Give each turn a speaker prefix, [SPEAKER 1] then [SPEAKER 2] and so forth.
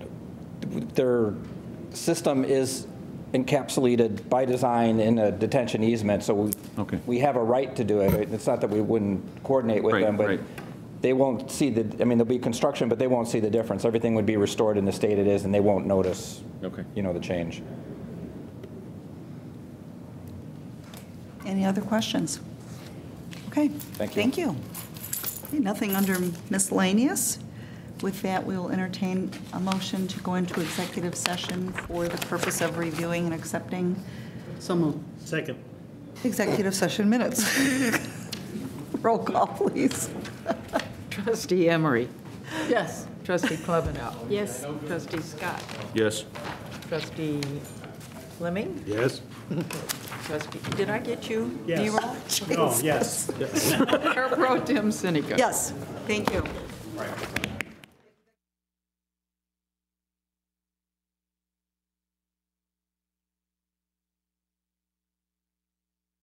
[SPEAKER 1] their system is encapsulated by design in a detention easement, so we,
[SPEAKER 2] Okay.
[SPEAKER 1] we have a right to do it. It's not that we wouldn't coordinate with
[SPEAKER 2] Right,
[SPEAKER 1] them, but
[SPEAKER 2] right.
[SPEAKER 1] they won't see the, I mean, there'll be construction, but they won't see the difference. Everything would be restored in the state it is, and they won't notice,
[SPEAKER 2] Okay.
[SPEAKER 1] you know, the change.
[SPEAKER 3] Any other questions? Okay.
[SPEAKER 1] Thank you.
[SPEAKER 3] Thank you. Okay, Nothing under miscellaneous. With that, we will entertain a motion to go into executive session for the purpose of reviewing and accepting
[SPEAKER 4] So moved.
[SPEAKER 5] Second.
[SPEAKER 3] executive session minutes. Roll call, please.
[SPEAKER 6] Trustee Emery.
[SPEAKER 4] Yes.
[SPEAKER 6] Trustee Klebanow.
[SPEAKER 4] Yes.
[SPEAKER 6] Trustee Scott.
[SPEAKER 2] Yes.
[SPEAKER 6] Trustee Fleming.
[SPEAKER 5] Yes.
[SPEAKER 6] Trustee, did I get you?
[SPEAKER 5] Yes.
[SPEAKER 6] D-roll?
[SPEAKER 5] No, yes.
[SPEAKER 6] Mayor Pro Tim Sinica.
[SPEAKER 3] Yes, thank you.